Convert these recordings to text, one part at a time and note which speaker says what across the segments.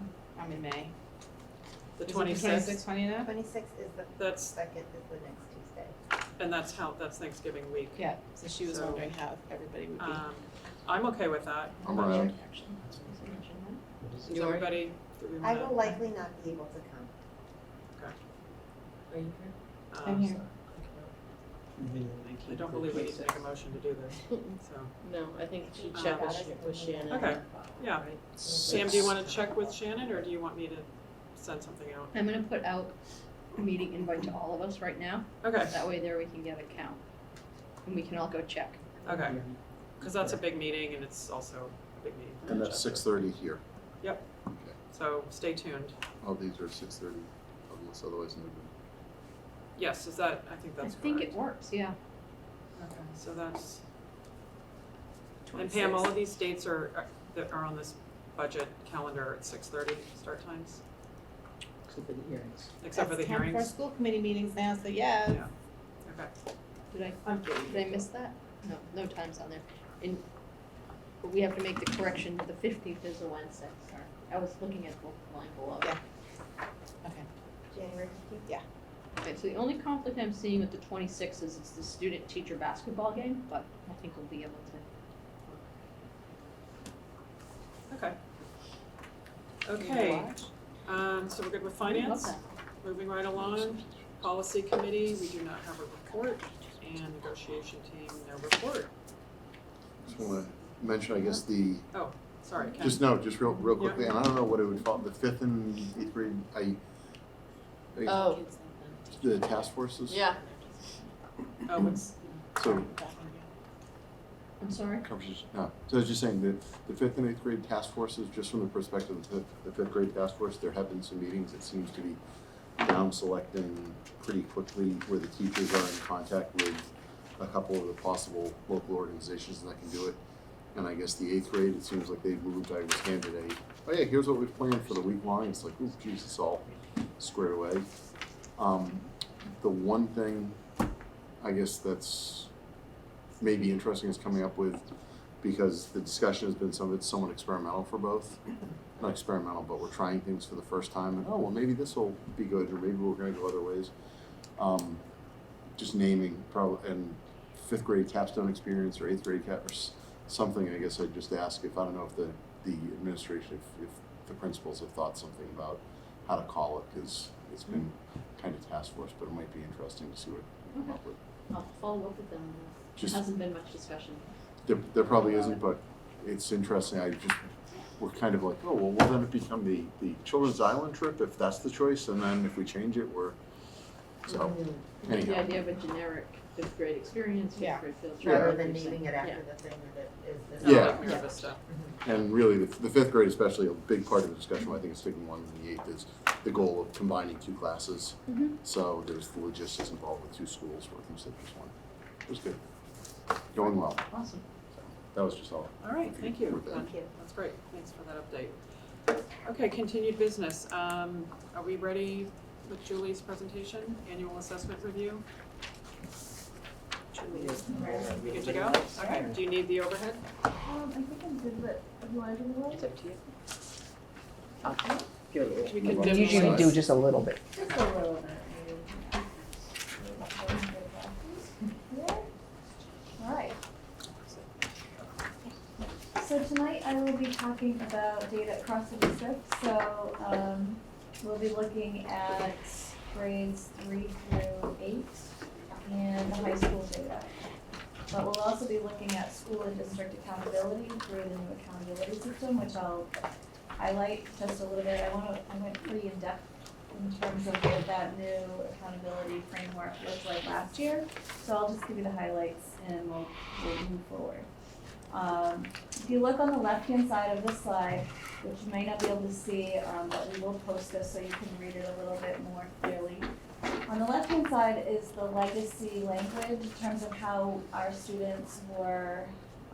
Speaker 1: sometime in May.
Speaker 2: the
Speaker 1: Is it
Speaker 2: twenty-sixth,
Speaker 1: Twenty-sixth, twenty-ninth?
Speaker 3: Twenty-sixth is the
Speaker 2: that's,
Speaker 3: second, is the next Tuesday.
Speaker 2: and that's how, that's Thanksgiving week.
Speaker 1: Yeah, so she was
Speaker 2: So-
Speaker 1: wondering how if everybody would be.
Speaker 2: Um, I'm okay with that.
Speaker 4: I'm around.
Speaker 2: Is everybody, do we
Speaker 3: I
Speaker 2: wanna?
Speaker 3: will likely not be able to come.
Speaker 5: Are you
Speaker 2: um,
Speaker 1: I'm here.
Speaker 2: I don't believe we need to make a motion to do this, so.
Speaker 5: No, I
Speaker 3: Um,
Speaker 5: think she
Speaker 2: Uh,
Speaker 5: checked with Shan- with Shannon.
Speaker 2: Okay, yeah.
Speaker 5: Right.
Speaker 2: Sam, do you wanna check with Shannon, or do you want me to send something out?
Speaker 6: I'm gonna put out a meeting invite to all of us right now,
Speaker 2: Okay,
Speaker 6: that way there we can get a count. And we can all go check.
Speaker 2: okay, cause that's a big meeting and it's also a big meeting. for
Speaker 4: And
Speaker 2: the
Speaker 4: that's
Speaker 2: chapter.
Speaker 4: six thirty here.
Speaker 2: So stay tuned.
Speaker 4: All these are six thirty, unless otherwise noted.
Speaker 2: Yes, is that, I think
Speaker 6: I
Speaker 2: that's correct.
Speaker 6: think it works, yeah.
Speaker 2: Okay, so that's, and Pam, all of these dates are, are- that are on this budget calendar at six thirty start times,
Speaker 5: Except for the hearings.
Speaker 2: except for the
Speaker 1: It's time for our
Speaker 2: hearings?
Speaker 1: school committee meetings now, so yeah.
Speaker 2: Yeah. Okay.
Speaker 6: Did I,
Speaker 1: I'm kidding.
Speaker 6: did I miss that? No, no time's on there. And, but we have to make the correction, the fifteenth is a Wednesday, sorry. I was looking at the line below.
Speaker 1: Yeah.
Speaker 3: January fifteenth?
Speaker 6: Okay, so the only conflict I'm seeing with the twenty-sixth is it's the student-teacher basketball game, but I think we'll be able to.
Speaker 2: Okay.
Speaker 1: You
Speaker 2: Okay,
Speaker 1: watch?
Speaker 2: um, so we're good with
Speaker 6: I love
Speaker 2: finance,
Speaker 6: that.
Speaker 2: moving right along. Policy committee, we do not have a report, and negotiation team, no report.
Speaker 4: Just wanna mention, I guess, the,
Speaker 2: Sorry, Ken.
Speaker 4: just no, just real, real quickly, and I don't know what it would fall, the fifth and eighth grade, I, I-
Speaker 5: Oh,
Speaker 4: the task forces?
Speaker 5: yeah,
Speaker 2: Oh, it's,
Speaker 4: So
Speaker 6: I'm sorry?
Speaker 4: conversation, no, so I was just saying that the fifth and eighth grade task forces, just from the perspective of the, the fifth grade task force, there have been some meetings, it seems to be down selecting pretty quickly where the teachers are in contact with a couple of the possible local organizations that can do it. And I guess the eighth grade, it seems like they moved, I was handed a, oh yeah, here's what we've planned for the week long, it's like, ooh, geez, it's all squared away. Um, the one thing, I guess that's maybe interesting is coming up with, because the discussion has been some of it's somewhat experimental for both. Not experimental, but we're trying things for the first time, and oh, well, maybe this will be good, or maybe we're gonna go other ways. Um, just naming probably, and fifth grade capstone experience or eighth grade cap, or s- something, I guess I'd just ask if, I don't know if the, the administration, if, if the principals have thought something about how to call it, cause it's been kind of task force, but it might be interesting to see what we come up with.
Speaker 6: I'll follow up with them. There
Speaker 4: Just,
Speaker 6: hasn't been much discussion.
Speaker 4: there, there probably isn't, but it's interesting, I just, we're kind of like, oh, well, will then it become the, the children's island trip if that's the choice, and then if we change it, we're, so,
Speaker 6: The
Speaker 4: anyhow.
Speaker 6: idea of a generic fifth grade experience,
Speaker 1: Yeah.
Speaker 6: fifth grade field trip.
Speaker 3: Rather
Speaker 6: like
Speaker 3: than
Speaker 6: you're saying.
Speaker 3: naming it
Speaker 6: Yeah.
Speaker 3: after the thing that is
Speaker 2: not
Speaker 3: this.
Speaker 4: Yeah.
Speaker 2: like nervous stuff.
Speaker 4: And really, the, the fifth grade especially, a big part of the discussion, why I think it's taking longer than the eighth, is the goal of combining two classes.
Speaker 6: Mhm.
Speaker 4: So there's the logistics involved with two schools working instead of just one. It was good. Going well.
Speaker 6: Awesome.
Speaker 4: That was just all.
Speaker 2: All right, thank you.
Speaker 4: With that.
Speaker 3: Thank you.
Speaker 2: That's great, thanks for that update. Okay, continued business, um, are we ready with Julie's presentation, annual assessment review? Julie, we good to go? Okay, do you need the overhead?
Speaker 3: Um, I think I'm good with, you want to do
Speaker 5: It's up to you. I'll give it a little.
Speaker 2: We can
Speaker 4: Well,
Speaker 2: dim the
Speaker 7: Usually
Speaker 2: lights.
Speaker 7: do just a little bit.
Speaker 3: Just a little bit.
Speaker 8: Alright. So tonight I will be talking about data across the district, so, um, we'll be looking at grades three through eight and the high school data. But we'll also be looking at school and district accountability through the new accountability system, which I'll highlight just a little bit. I wanna, I went pretty in-depth in terms of what that new accountability framework looked like last year. So I'll just give you the highlights and we'll, we'll move forward. Um, if you look on the left-hand side of the slide, which you may not be able to see, um, but we will post this so you can read it a little bit more clearly. On the left-hand side is the legacy language in terms of how our students were,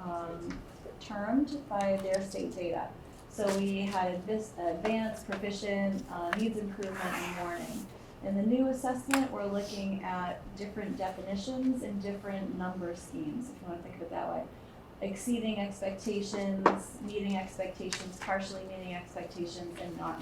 Speaker 8: um, termed by their state data. So we had advis- advanced, proficient, uh, needs improvement, and warning. In the new assessment, we're looking at different definitions and different number schemes, if you wanna think of it that way. Exceeding expectations, meeting expectations, partially meeting expectations, and not